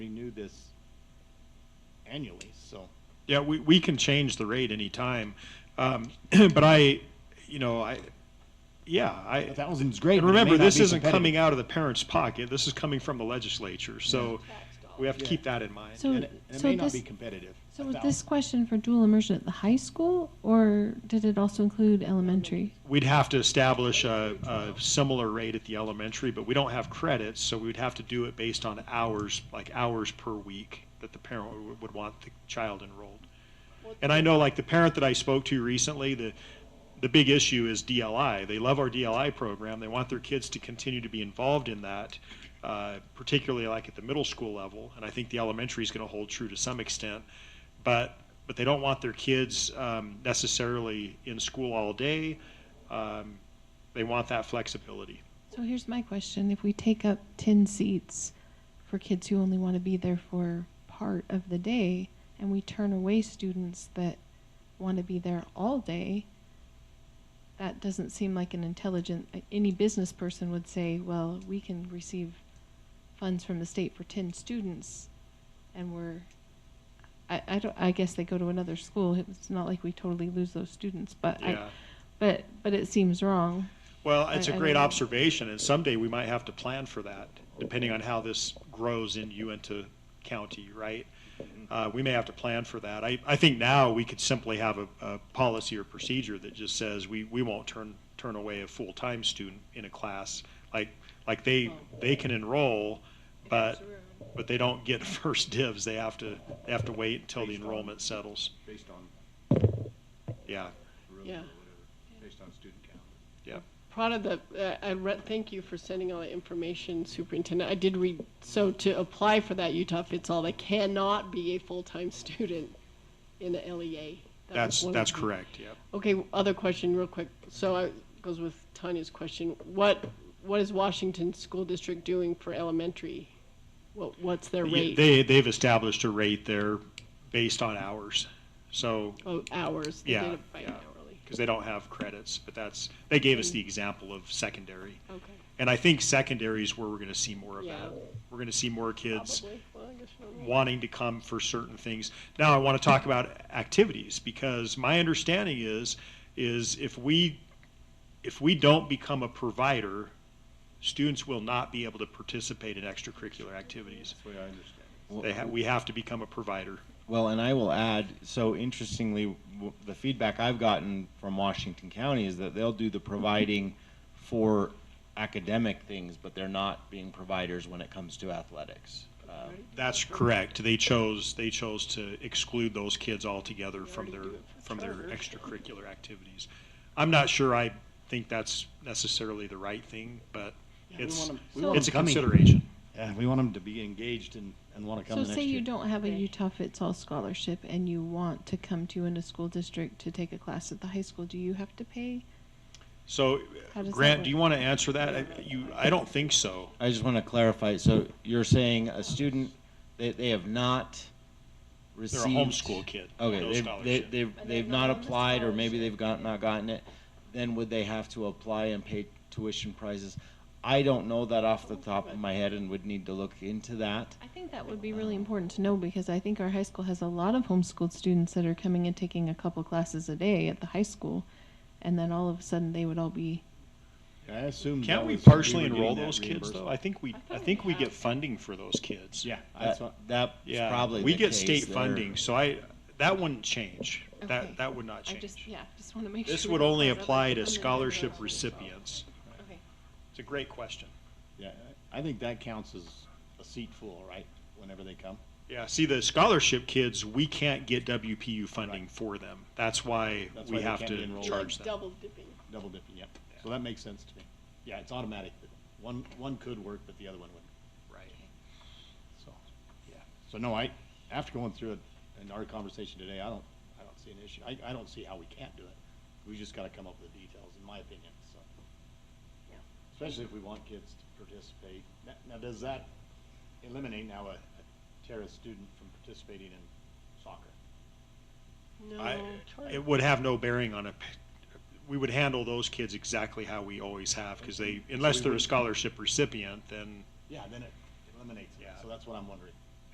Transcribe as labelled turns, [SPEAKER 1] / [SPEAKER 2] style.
[SPEAKER 1] renew this annually, so.
[SPEAKER 2] Yeah, we, we can change the rate anytime. Um, but I, you know, I, yeah, I.
[SPEAKER 1] A thousand's great,
[SPEAKER 2] And
[SPEAKER 1] but it may
[SPEAKER 2] remember,
[SPEAKER 1] not
[SPEAKER 2] this
[SPEAKER 1] be
[SPEAKER 2] isn't
[SPEAKER 1] competitive.
[SPEAKER 2] coming out of the parents' pocket. This is coming from the legislature, so we have to keep that in mind.
[SPEAKER 1] And
[SPEAKER 3] So,
[SPEAKER 1] it and it
[SPEAKER 3] so
[SPEAKER 1] may not be
[SPEAKER 3] this,
[SPEAKER 1] competitive.
[SPEAKER 3] so
[SPEAKER 1] a
[SPEAKER 3] was this
[SPEAKER 1] thousand.
[SPEAKER 3] question for dual immersion at the high school, or did it also include elementary?
[SPEAKER 2] We'd have to establish a, a similar rate at the elementary, but we don't have credits, so we would have to do it based on hours, like hours per week that the parent would- would want the child enrolled. And I know, like, the parent that I spoke to recently, the, the big issue is DLI. They love our DLI program. They want their kids to continue to be involved in that, uh, particularly like at the middle school level. And I think the elementary is going to hold true to some extent. But, but they don't want their kids um, necessarily in school all day. Um, They want that flexibility.
[SPEAKER 3] So here's my question, if we take up ten seats for kids who only want to be there for part of the day, and we turn away students that want to be there all day, that doesn't seem like an intelligent, uh, any business person would say, well, we can receive funds from the state for ten students, and we're, I, I don't, I guess they go to another school, it's not like we totally lose those students, but I,
[SPEAKER 2] Yeah.
[SPEAKER 3] but, but it seems wrong.
[SPEAKER 2] Well, it's
[SPEAKER 3] I-
[SPEAKER 2] a
[SPEAKER 3] I
[SPEAKER 2] great
[SPEAKER 3] don't know.
[SPEAKER 2] observation, and someday we might have to plan for that, depending on how this grows in Uinta County, right?
[SPEAKER 1] Mm-hmm.
[SPEAKER 2] Uh, we may have to plan for that. I, I think now we could simply have a, a policy or procedure that just says we, we won't turn, turn away a full-time student in a class. Like, like they, they can enroll, but, but they don't get first dibs. They have to, they have to wait until the
[SPEAKER 1] Based on-
[SPEAKER 2] enrollment settles.
[SPEAKER 1] Based on
[SPEAKER 2] Yeah,
[SPEAKER 1] room or
[SPEAKER 4] Yeah.
[SPEAKER 1] whatever, based on student count.
[SPEAKER 2] yeah.
[SPEAKER 4] Part of the, uh, I read, thank you for sending all the information, Superintendent. I did read, so to apply for that Utah Fits All, they cannot be a full-time student in the LEA. That was
[SPEAKER 2] That's,
[SPEAKER 4] one of
[SPEAKER 2] that's
[SPEAKER 4] the-
[SPEAKER 2] correct, yep.
[SPEAKER 4] Okay, other question real quick. So I, goes with Tanya's question. What, what is Washington School District doing for elementary? What, what's their
[SPEAKER 2] Yeah,
[SPEAKER 4] rate?
[SPEAKER 2] They, they've established a rate there based on hours, so,
[SPEAKER 4] Oh, hours. They did
[SPEAKER 2] Yeah,
[SPEAKER 4] it by
[SPEAKER 2] yeah.
[SPEAKER 4] hourly.
[SPEAKER 2] because they don't have credits, but that's, they gave us the
[SPEAKER 4] Mm.
[SPEAKER 2] example of secondary.
[SPEAKER 4] Okay.
[SPEAKER 2] And I think secondary is where we're gonna see more of
[SPEAKER 4] Yeah.
[SPEAKER 2] that. We're gonna see more kids
[SPEAKER 4] Probably. Well, I guess we don't know.
[SPEAKER 2] wanting to come for certain things. Now I want to talk about activities because my understanding is is if we if we don't become a provider, students will not be able to participate in extracurricular activities.
[SPEAKER 1] That's the way I understand it.
[SPEAKER 2] They ha- we have to become a provider.
[SPEAKER 5] Well, and I will add, so interestingly, w- the feedback I've gotten from Washington County is that they'll do the providing for academic things, but they're not being providers when it comes to athletics. Uh,
[SPEAKER 2] That's correct. They chose, they chose to exclude those kids altogether from their, from their extracurricular activities. I'm not sure I think that's necessarily the right thing, but
[SPEAKER 1] we
[SPEAKER 2] it's,
[SPEAKER 1] want 'em- we want
[SPEAKER 2] it's a
[SPEAKER 1] 'em coming.
[SPEAKER 2] consideration.
[SPEAKER 1] Yeah, we want them to be engaged and, and want to come
[SPEAKER 3] So
[SPEAKER 1] the next
[SPEAKER 3] say you
[SPEAKER 1] year.
[SPEAKER 3] don't have a Utah Fits All scholarship and you want to come to in a school district to take a class at the high school, do you have to pay?
[SPEAKER 2] So,
[SPEAKER 3] How does that
[SPEAKER 2] Grant, do you
[SPEAKER 3] work?
[SPEAKER 2] want to answer that? I- You, I don't think so.
[SPEAKER 5] I just want to clarify, so you're saying a student, they, they have not
[SPEAKER 2] They're a
[SPEAKER 5] received.
[SPEAKER 2] homeschool kid. no
[SPEAKER 5] Okay, they've, they-
[SPEAKER 2] scholarship.
[SPEAKER 5] they've, they've not applied, or maybe they've got, not gotten it, then would they have to apply and pay tuition prices? I don't know that off the top of my head and would need to look into that.
[SPEAKER 3] I think that would be really important to know because I think our high school has a lot of homeschooled students that are coming and taking a couple classes a day at the high school. And then all of a sudden they would all be,
[SPEAKER 1] I assume.
[SPEAKER 2] Can't
[SPEAKER 1] that
[SPEAKER 2] we
[SPEAKER 1] was- were
[SPEAKER 2] partially
[SPEAKER 1] getting
[SPEAKER 2] enroll
[SPEAKER 1] that
[SPEAKER 2] those kids though? I
[SPEAKER 1] reimbursement.
[SPEAKER 2] think we, I
[SPEAKER 3] thought
[SPEAKER 2] think
[SPEAKER 3] we
[SPEAKER 2] we get
[SPEAKER 3] had-
[SPEAKER 2] funding for those kids.
[SPEAKER 1] Yeah, that's
[SPEAKER 5] That,
[SPEAKER 1] what,
[SPEAKER 5] that's probably
[SPEAKER 2] Uh, We
[SPEAKER 5] the
[SPEAKER 2] get
[SPEAKER 5] case
[SPEAKER 2] state
[SPEAKER 5] there.
[SPEAKER 2] funding, so I, that wouldn't change.
[SPEAKER 3] Okay.
[SPEAKER 2] That, that would not
[SPEAKER 3] I
[SPEAKER 2] change.
[SPEAKER 3] just, yeah, just want to make sure.
[SPEAKER 2] This
[SPEAKER 3] we
[SPEAKER 2] would
[SPEAKER 3] don't
[SPEAKER 2] only
[SPEAKER 3] cause other
[SPEAKER 2] apply to
[SPEAKER 3] funding
[SPEAKER 2] scholarship
[SPEAKER 3] problems.
[SPEAKER 2] recipients.
[SPEAKER 3] Okay.
[SPEAKER 2] It's a great question.
[SPEAKER 1] yeah, I think that counts as a seat full, right? Whenever they come.
[SPEAKER 2] Yeah, see, the scholarship kids, we can't get WPU funding for them. That's why
[SPEAKER 1] That's why
[SPEAKER 2] we
[SPEAKER 1] they
[SPEAKER 2] have
[SPEAKER 1] can't be
[SPEAKER 2] to
[SPEAKER 1] enrolled.
[SPEAKER 2] charge them.
[SPEAKER 4] Like Double dipping.
[SPEAKER 1] Double dipping, yep. So that makes sense to me. Yeah, it's automatic. One, one could work, but the other one wouldn't,
[SPEAKER 2] Right.
[SPEAKER 1] so, yeah. So no, I, after going through it and our conversation today, I don't, I don't see an issue. I, I don't see how we can't do it. We just gotta come up with the details, in my opinion, so. Especially if we want kids to participate. Now, now does that eliminate now a a terrorist student from participating in soccer?
[SPEAKER 2] I-
[SPEAKER 4] No. charge.
[SPEAKER 2] It would have no bearing on a, p- we would handle those kids exactly how we always have, because they, unless
[SPEAKER 1] we
[SPEAKER 2] they're a
[SPEAKER 1] wouldn't-
[SPEAKER 2] scholarship recipient, then
[SPEAKER 1] Yeah, then it eliminates it.
[SPEAKER 2] Yeah.
[SPEAKER 1] So that's what I'm wondering.